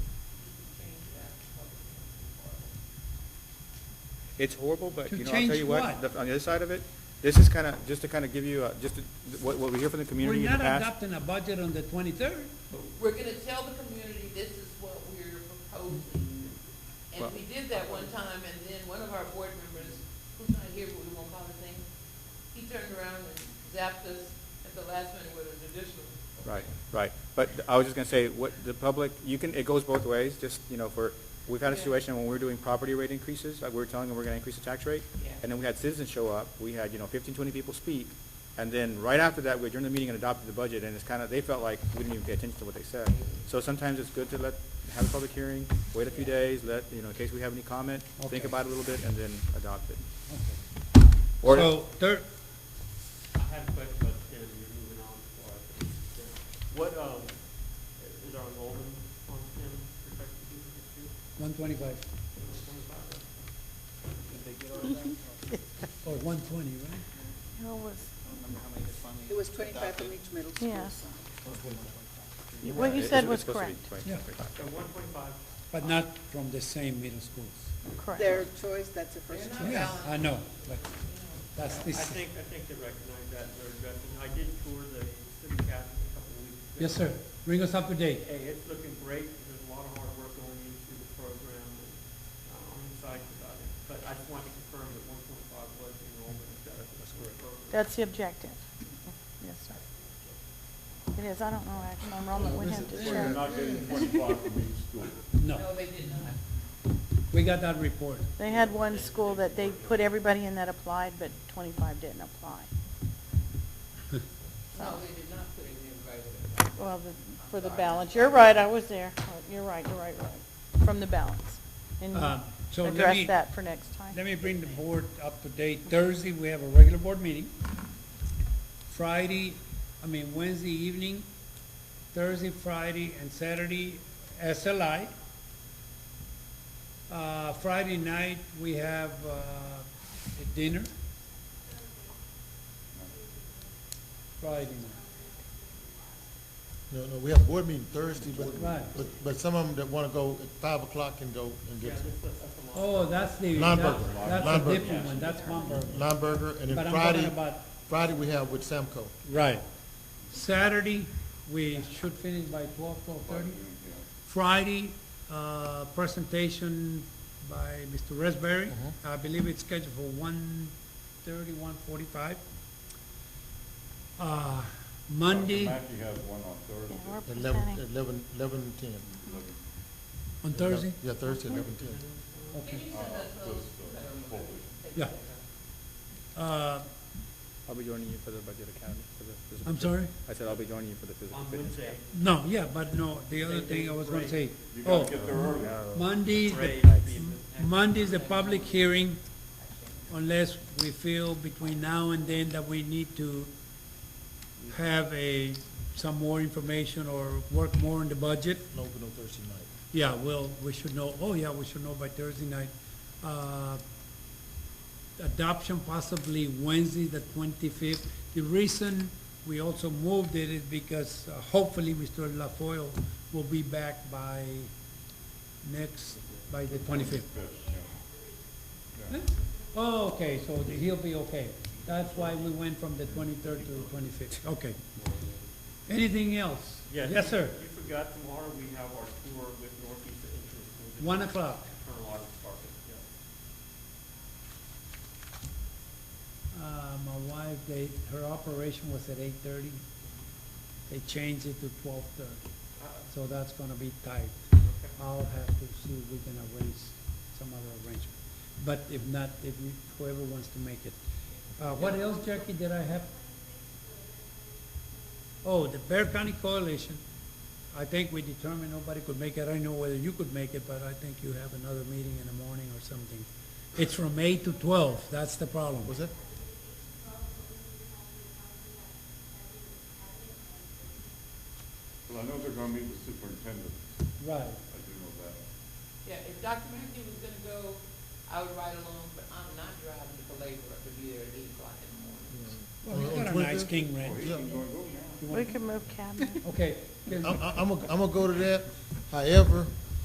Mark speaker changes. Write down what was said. Speaker 1: It's horrible, but
Speaker 2: To
Speaker 1: you know, I'll
Speaker 2: change
Speaker 1: tell you what,
Speaker 2: what?
Speaker 1: the- on the other side of it, this is kind of, just to kind of give you, uh, just to- what, what we hear from the
Speaker 2: We're
Speaker 1: community in the
Speaker 2: not
Speaker 1: past.
Speaker 2: adopting a budget on the twenty-third.
Speaker 3: We're gonna tell the community this is what we're proposing. And
Speaker 1: Well-
Speaker 3: we did that one time, and then one of our board members, who's not here, but we won't call his name, he turned around and zapped us at the last minute with a judicial.
Speaker 1: Right, right. But I was just going to say, what, the public, you can, it goes both ways, just, you know, for, we've had a
Speaker 3: Yeah.
Speaker 1: situation when we're doing property rate increases, like we were telling them we're going to increase the tax rate.
Speaker 3: Yeah.
Speaker 1: And then we had citizens show up, we had, you know, fifteen, twenty people speak, and then right after that, we adjourned the meeting and adopted the budget, and it's kind of, they felt like we didn't even pay attention to what they said. So sometimes it's good to let, have a public hearing, wait a few days, let, you know, in case we have any comment, think
Speaker 2: Okay.
Speaker 1: about it a little bit, and then adopt it. Or-
Speaker 2: So, third,
Speaker 4: I have a quick question, and you're moving on before I finish this. What, um, is our enrollment on STEM projected to be this year?
Speaker 2: one twenty-five,
Speaker 4: Is it 25?
Speaker 2: or one twenty, right?
Speaker 5: Who was,
Speaker 6: It was twenty-five from each middle school.
Speaker 5: Yeah.
Speaker 6: so.
Speaker 5: What you
Speaker 1: It's-
Speaker 5: said
Speaker 1: it's
Speaker 5: was
Speaker 1: supposed to be
Speaker 5: correct.
Speaker 1: 20.
Speaker 2: Yeah.
Speaker 4: So one twenty-five,
Speaker 2: But not from the same middle schools.
Speaker 6: Their
Speaker 5: correct?
Speaker 6: choice, that's the
Speaker 3: They're
Speaker 6: first choice.
Speaker 3: not
Speaker 2: Yeah,
Speaker 3: valid.
Speaker 2: I know, but that's
Speaker 4: I
Speaker 2: this,
Speaker 4: think, I think they recognize that, and they're addressing, I did tour the city council a couple of weeks ago.
Speaker 2: yes, sir, bring us up to date.
Speaker 4: Hey, it's looking great, there's a lot of hard work going into the program, and uh, I'm excited about it, but I just wanted to confirm that one point five was the enrollment. That's correct.
Speaker 5: That's the objective. Yes, sir. It is, I don't know, actually, enrollment, we have to
Speaker 7: We're
Speaker 5: check.
Speaker 7: not getting twenty-five from each school.
Speaker 2: No,
Speaker 3: No, they did not.
Speaker 2: we got that report.
Speaker 5: They had one school that they put everybody in that applied, but twenty-five didn't apply.
Speaker 3: No, they did not put it in right away.
Speaker 5: Well, the, for the balance, you're right, I was there, you're right, you're right, right, from the balance. And
Speaker 2: Um, so let me-
Speaker 5: address that for next time.
Speaker 2: Let me bring the board up to date. Thursday, we have a regular board meeting. Friday, I mean, Wednesday evening, Thursday, Friday, and Saturday, SLI. Uh, Friday night, we have, uh, a dinner. Friday night.
Speaker 8: No, no, we have board meeting Thursday, but,
Speaker 2: Right.
Speaker 8: but, but some of them that wanna go at five o'clock and go and get
Speaker 2: Oh, that's the,
Speaker 8: Nonburger.
Speaker 2: that- that's a
Speaker 8: Nonburger.
Speaker 2: different one, that's hamburger.
Speaker 8: non-burger, and
Speaker 2: But
Speaker 8: then
Speaker 2: I'm talking
Speaker 8: Friday,
Speaker 2: about
Speaker 8: Friday we have with Samco.
Speaker 2: Right. Saturday, we should finish by twelve, twelve-thirty. Friday, uh, presentation by Mr. Raspberry. I believe it's scheduled for one-thirty, one-forty-five. Uh, Monday,
Speaker 7: Mackey has one on
Speaker 5: Yeah,
Speaker 7: Thursday.
Speaker 5: we're
Speaker 8: Eleven,
Speaker 5: presenting.
Speaker 8: eleven, eleven and ten.
Speaker 2: on Thursday,
Speaker 8: Yeah, Thursday, eleven, ten.
Speaker 2: okay.
Speaker 7: Full week.
Speaker 2: Yeah. Uh,
Speaker 1: I'll be joining you for the budget academy, for the physical.
Speaker 2: I'm
Speaker 1: fit-
Speaker 2: sorry?
Speaker 1: I said I'll be joining you for the physical
Speaker 4: On
Speaker 1: fitness.
Speaker 4: Wednesday,
Speaker 2: No, yeah, but no, the other thing I was gonna say,
Speaker 7: You
Speaker 2: oh,
Speaker 7: gotta get there early.
Speaker 2: Monday, is
Speaker 4: Ray,
Speaker 2: the
Speaker 4: the-
Speaker 2: Monday's the public hearing, unless we feel between now and then that we need to have a, some more information or work more on the budget.
Speaker 8: No, we go Thursday night.
Speaker 2: Yeah, well, we should know, oh yeah, we should know by Thursday night. Uh, Adoption possibly Wednesday, the twenty-fifth. The reason we also moved it is because uh, hopefully Mr. LaFoil will be back by next, by the twenty-fifth. Oh, okay, so the- he'll be okay. That's why we went from the twenty-third to the twenty-fifth, okay. Anything else?
Speaker 4: Yes.
Speaker 2: Yes, sir.
Speaker 4: You forgot tomorrow, we have our tour with Northeast Interschools.
Speaker 2: One o'clock.
Speaker 4: Colonel Otis Park, yeah.
Speaker 2: Uh, my wife, they, her operation was at eight thirty. They changed it to twelve thirty,
Speaker 4: Uh,
Speaker 2: so that's gonna be tight.
Speaker 4: okay.
Speaker 2: I'll have to see if we can arrange some other arrangement. But if not, if you- whoever wants to make it. Uh, what else, Jackie, did I have? Oh, the Bear County Coalition. I think we determined nobody could make it. I don't know whether you could make it, but I think you have another meeting in the morning or something. It's from eight to twelve. That's the problem.
Speaker 8: Was that?
Speaker 7: Well, I know they're gonna meet with superintendent,
Speaker 2: Right.
Speaker 7: I do know that.
Speaker 3: Yeah, if Dr. Mackey was gonna go, I would ride along, but I'm not driving to Belabor to be there at eight o'clock in the morning.
Speaker 2: Well, you
Speaker 8: On- on
Speaker 2: got a nice
Speaker 8: 25th?
Speaker 2: king
Speaker 7: Oh,
Speaker 2: ranch.
Speaker 7: he's
Speaker 8: Yeah.
Speaker 7: gonna go now.
Speaker 2: You
Speaker 5: We
Speaker 2: want-
Speaker 5: could move cabinet.
Speaker 2: Okay,
Speaker 8: I'm, I'm, I'm gonna go to that. However,